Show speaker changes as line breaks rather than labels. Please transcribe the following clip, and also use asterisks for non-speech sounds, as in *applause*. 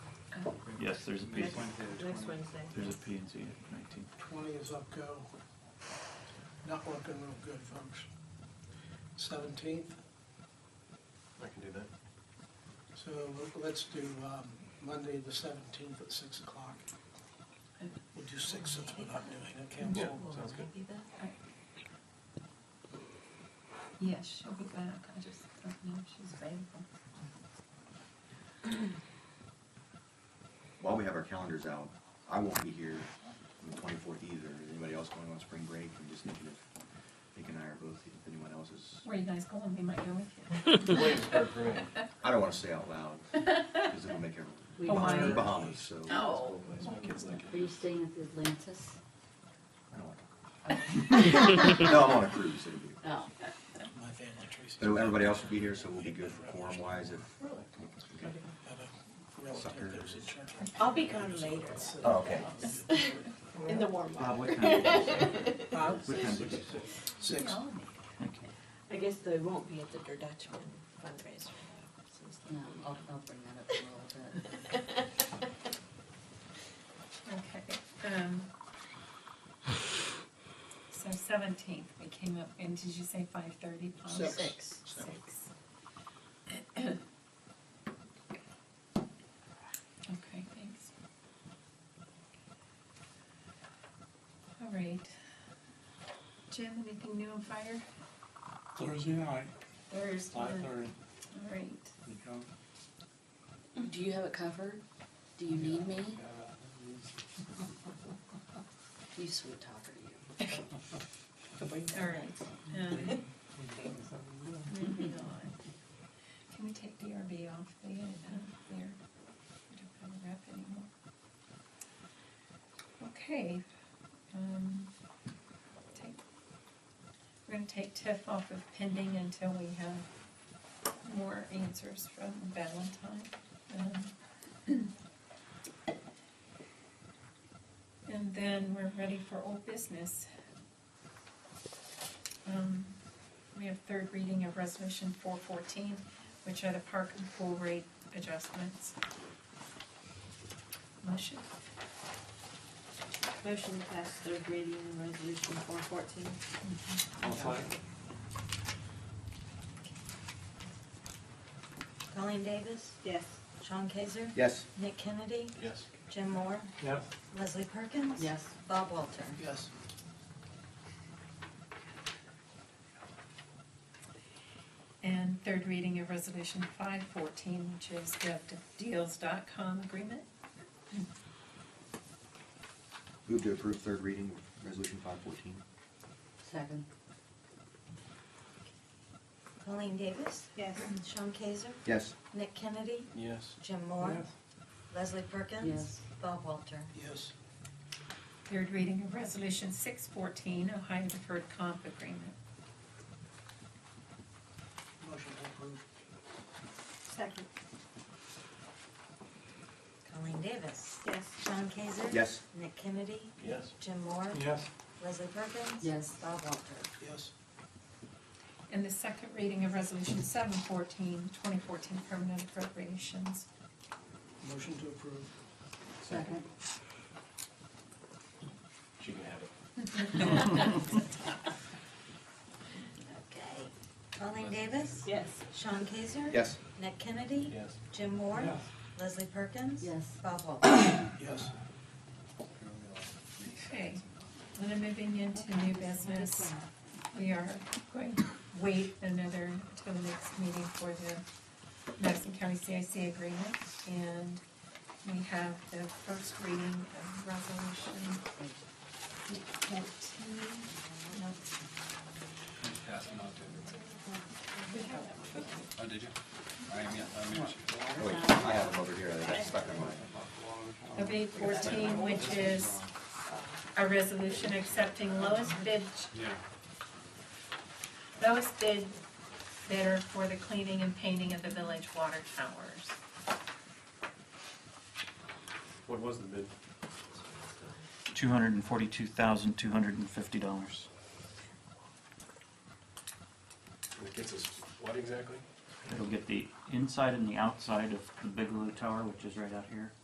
Yes, there's a P,
Next Wednesday, the
Next
20th.
Wednesday.
there's a P and Z at nineteen.
Twenty is up go. Not looking real good, folks. Seventeenth,
I can do that.
so let's do um, Monday, the seventeenth at six o'clock. We'll do six since we're not doing a council.
Yeah. sounds good.
Yes, she'll be back, I just don't know if she's available.
While we have our calendars out, I won't be here on the twenty-fourth either. Is anybody else going on spring break? I'm just thinking if Nick and I are both, if anyone else is,
Where you guys going, we might go with
*laughs*
you.
Williamsburg for me.
I don't wanna say out loud, cause it'll make
We
everyone,
might.
Bahamas, so.
Oh.
My kids like
Are you staying at the Atlantis?
I don't like it. No, I'm on a cruise, *laughs* it'll be,
Oh.
My family, Tracy.
so everybody else will be here, so we'll be good for quorum wise if. Okay.
Had a relative that was in church.
I'll be gone later,
Oh, okay.
in the warm
Bob,
up.
Uh, what time? did you say?
Huh?
What time did you say?
Six.
Thank you.
I guess they won't be at the Der Dutchman fundraiser. since
No, I'll, I'll bring that up in a little bit.
Okay, um. So seventeenth, we came up, and did you say five thirty, Paul?
Six.
Six. Six. Okay, thanks. All right. Jim, anything new on fire?
Thursday night,
There's,
five
one.
thirty,
all right.
you come,
Do you have it covered? Do you need me?
uh, it's-
You sweet talker, you.
All right. um,
we got something to do.
moving on. *laughs* Can we take DRB off the, uh, there? We don't have a rep anymore. Okay, um, take, we're gonna take TIF off of pending until we have more answers from Valentine. Um, *clears throat* And then we're ready for old business. Um, we have third reading of resolution four fourteen, which are the park and pool rate adjustments. Motion?
Motion to pass third reading of resolution four fourteen.
I'll say,
Colleen Davis,
Yes.
Sean Kaiser,
Yes.
Nick Kennedy,
Yes.
Jim Moore,
Yes,
Leslie Perkins.
Yes,
Bob Walter.
Yes.
And third reading of resolution five fourteen, which is the com agreement.
Move to approve third reading, resolution five fourteen.
second.
Colleen Davis,
Yes.
Sean Kaiser,
Yes.
Nick Kennedy,
Yes.
Jim Moore,
Yes.
Leslie Perkins.
Yes.
Bob Walter.
Yes.
Third reading of resolution six fourteen, Ohio deferred comp agreement.
Motion to approve.
Second.
Colleen Davis,
Yes.
Sean Kaiser.
Yes.
Nick Kennedy,
Yes.
Jim Moore,
yes,
Leslie Perkins.
Yes.
Bob Walter.
Yes.
And the second reading of resolution seven fourteen, twenty fourteen permanent appropriations. *laughs*
Motion to approve.
Second.
She can have it.
Okay. Colleen Davis,
Yes.
Sean Kaiser.
Yes.
Nick Kennedy,
Yes.
Jim Moore,
yes.
Leslie Perkins.
Yes.
Bob Walter.
Yes.
Okay, and then moving into new business. We are going to wait another, till the next meeting for the Madison County CIC agreement. And we have the first reading of resolution fourteen. No, we have that one.
Oh, did you? I am, yeah, I am.
Oh, wait, I have them over here, I got stuck on mine.
Of eight fourteen, which is a resolution accepting lowest bid. Lowest bid bidder for the cleaning and painting of the village water towers.
What was the bid?
Two hundred and forty-two thousand, two hundred and fifty dollars.
It gets us what exactly?
It'll get the inside and the outside of the Bigelow Tower, which is right out here.